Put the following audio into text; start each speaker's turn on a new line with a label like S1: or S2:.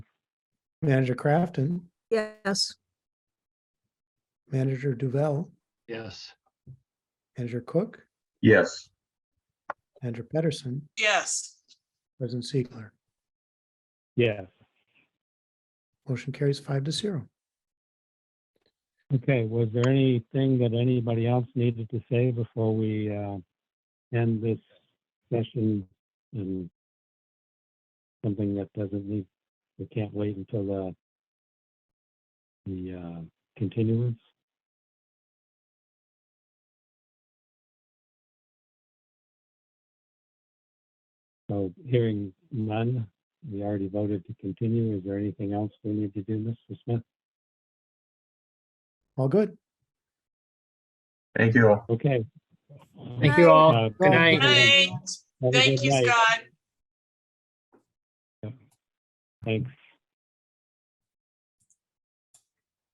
S1: Manager Crafton,
S2: Yes.
S1: Manager Duval,
S3: Yes.
S1: Manager Cook,
S4: Yes.
S1: Manager Pedersen,
S5: Yes.
S1: President Siegler.
S6: Yes.
S1: Motion carries five to zero.
S6: Okay, was there anything that anybody else needed to say before we uh, end this session? And something that doesn't need, we can't wait until the the uh, continuance? So hearing none, we already voted to continue. Is there anything else we need to do, Mr. Smith?
S1: All good.
S4: Thank you all.
S6: Okay.
S2: Thank you all.
S6: Uh,
S1: Good night.
S5: Night.
S6: Have a
S5: Thank
S6: good
S5: you,
S6: night.
S5: Scott.
S6: Thanks.